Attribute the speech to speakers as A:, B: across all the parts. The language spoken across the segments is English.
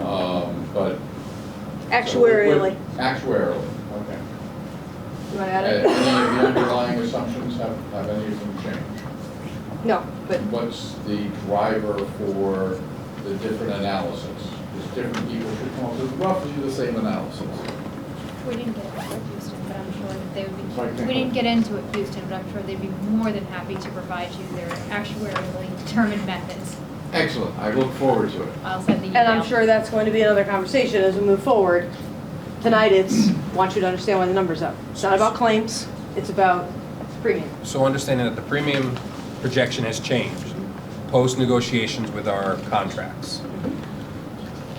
A: Um, But.
B: Actuarially.
A: Actuarially, okay.
B: You want to
A: Uh,
B: add
A: Any of
B: it?
A: the underlying assumptions, have, have any of them changed?
B: No, but
A: What's the driver for the different analysis? Because different people should come up with roughly the same analysis.
C: We didn't get into it with Houston, but I'm sure that they
A: Sorry,
C: would be,
A: can't
C: we didn't
A: go.
C: get into it with Houston, but I'm sure they'd be more than happy to provide you their actuarially determined methods.
A: Excellent, I look forward to it.
C: I'll send the
B: And
C: email.
B: I'm sure that's going to be another conversation as we move forward. Tonight, it's, want you to understand why the number's up. It's not about claims, it's about premium.
D: So understanding that the premium projection has changed post-negotiations with our contracts.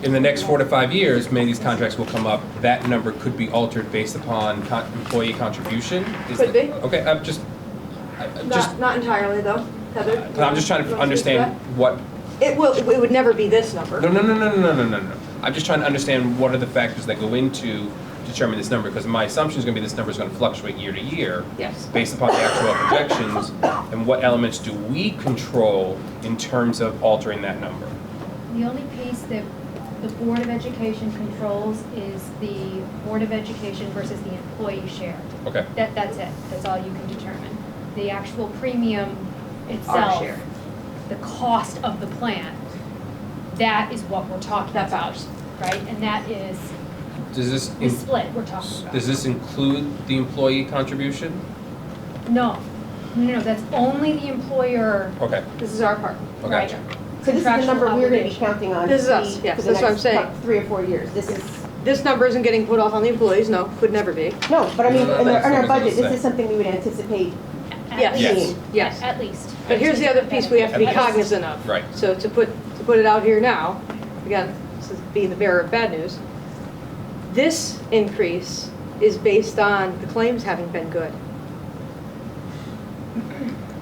D: In the next four to five years, many of these contracts will come up, that number could be altered based upon con- employee contribution? Is
B: Could
D: it-
B: be.
D: Okay, I'm just, I- I'm Uh, just, Uh,
B: Not, not entirely, though, Heather?
D: I'm just trying
B: You
D: to
B: wanna speak
D: understand what,
B: that? It will, it would never be this
D: no,
B: number.
D: no, no, no, no, no, no, no. I'm just trying to understand what are the factors that go into determining this number, because my assumption is gonna be this number is gonna fluctuate year to year.
B: Yes.
D: based upon the actual projections, and what elements do we control in terms of altering that number?
C: The only piece that the Board of Education controls is the Board of Education versus the employee share.
D: Okay,
C: That, that's it, that's all you can determine. The actual premium
B: Our
C: itself,
B: share.
C: the cost of the plan, that is what we're talking
B: That's
C: about,
B: ours.
C: right? And that is
D: does this,
C: the
D: in-
C: split we're talking about.
D: does this include the employee contribution?
C: No, no, no, that's only the employer,
D: Okay,
B: This is our part.
E: Oh,
D: I
C: right?
D: gotcha.
F: So this is the
C: contractual
F: number we're gonna be
C: obligation.
F: counting on.
B: This is
F: to
B: us,
F: see
B: yes,
F: for the
B: that's what I'm
F: next
B: saying.
F: cou- Three or four years, this is,
B: This number isn't getting put off on the employees, no, could never be.
F: no, but I mean, in
D: No,
F: our, in
D: that's
F: our
D: what I'm
F: budget, this
D: saying.
F: is something we would anticipate.
C: At
B: Yes.
D: Yes.
C: least.
B: Yes.
C: At least.
B: But here's the other piece we have to be
D: At least.
B: cognizant of.
D: Right.
B: So to put, to put it out here now, again, this is being the bearer of bad news, this increase is based on the claims having been good.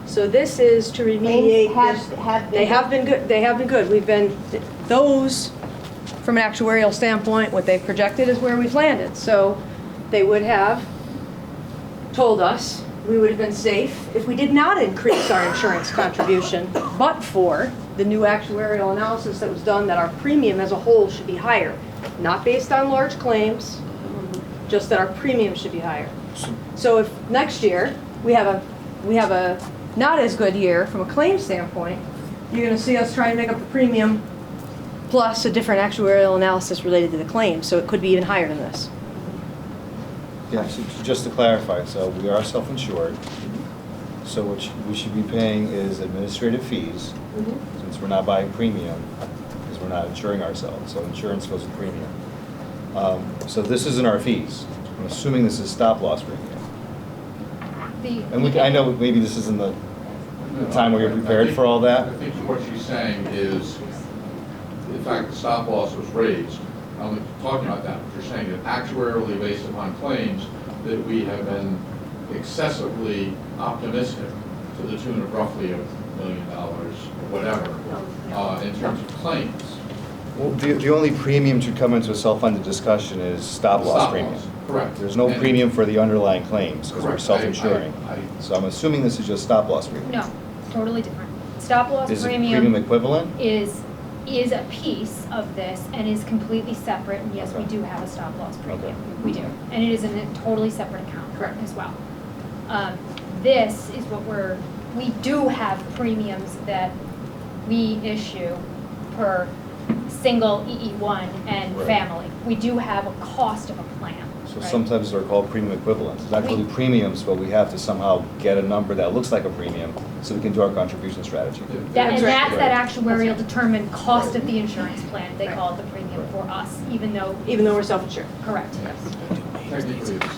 B: So this is to remediate.
F: Claims have,
B: this-
F: have been.
B: They have been good, they have been good. We've been, those, from an actuarial standpoint, what they've projected is where we've landed. So they would have told us, we would have been safe if we did not increase our insurance contribution, but for the new actuarial analysis that was done, that our premium as a whole should be higher. Not based on large claims, just that our premium should be higher. So if next year, we have a, we have a not as good year from a claim standpoint, you're gonna see us try and make up the premium plus a different actuarial analysis related to the claim, so it could be even higher than this.
E: Yeah, so j- just to clarify, so we are self-insured, so what sh- we should be paying is administrative fees, since we're not buying premium, because we're not insuring ourselves, so insurance goes with premium. Um, So this isn't our fees, I'm assuming this is stop-loss premium.
C: The.
E: And we, I know maybe this isn't the, The time where you're prepared for all that?
A: I think what she's saying is, in fact, the stop loss was raised. I'm not talking about that, but you're saying that actuarially based upon claims, that we have been excessively optimistic to the tune of roughly a million dollars, or whatever, uh, in terms of claims.
E: well, the, the only premium to come into a self-funded discussion is stop-loss
A: Stop-loss,
E: premium.
A: Correct.
E: There's no
A: And-
E: premium for the underlying claims, because we're
A: Correct. I-
E: self-insuring.
A: I- I-
E: So I'm assuming this is just stop-loss premium.
C: No, totally different. Stop loss
E: Is it premium
C: premium
E: equivalent?
C: is, is a piece of this and is completely separate, and yes, we
E: Okay.
C: do have a stop loss
E: Okay.
C: premium. We do, and it is in a totally separate account
B: Correct.
C: as well. Um, This is what we're, we do have premiums that we issue per single EE one and
E: Right.
C: family. We do have a cost of a plan,
E: So
C: right?
E: sometimes they're called premium equivalents. It's not really premiums, but we have to somehow get a number that looks like a premium so we can do our contribution strategy.
C: That, and
B: That's right.
C: that's that actuarial determined cost of the insurance plan, they
B: Right.
C: call it the premium for us, even though,
B: Even though we're self-insured,
C: correct.
A: Technically, it's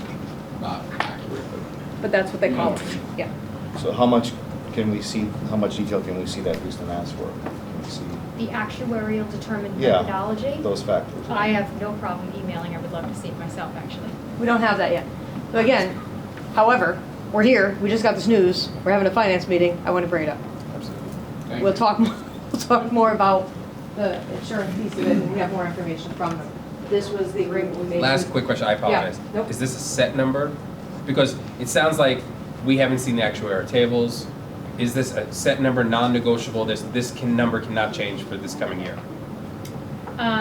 A: not accurate, but.
B: but that's what they call it,
A: Mm.
B: yeah.
E: So how much can we see, how much detail can we see that Houston asked for? Can we see
C: The actuarial determined
E: Yeah.
C: methodology,
E: those factors?
C: I have no problem emailing, I would love to see it myself, actually.
B: We don't have that yet. So again, however, we're here, we just got this news, we're having a finance meeting, I want to bring it up.
A: Thank
B: We'll
A: you.
B: talk, more- we'll talk more about the insurance piece of it, and we have more information from them. This was the agreement we made.
D: Last quick question, I apologize.
B: nope.
D: Is this a set number? Because it sounds like we haven't seen the actuarial tables. Is this a set number, non-negotiable, this, this can, number cannot change for this coming year?
C: Uh,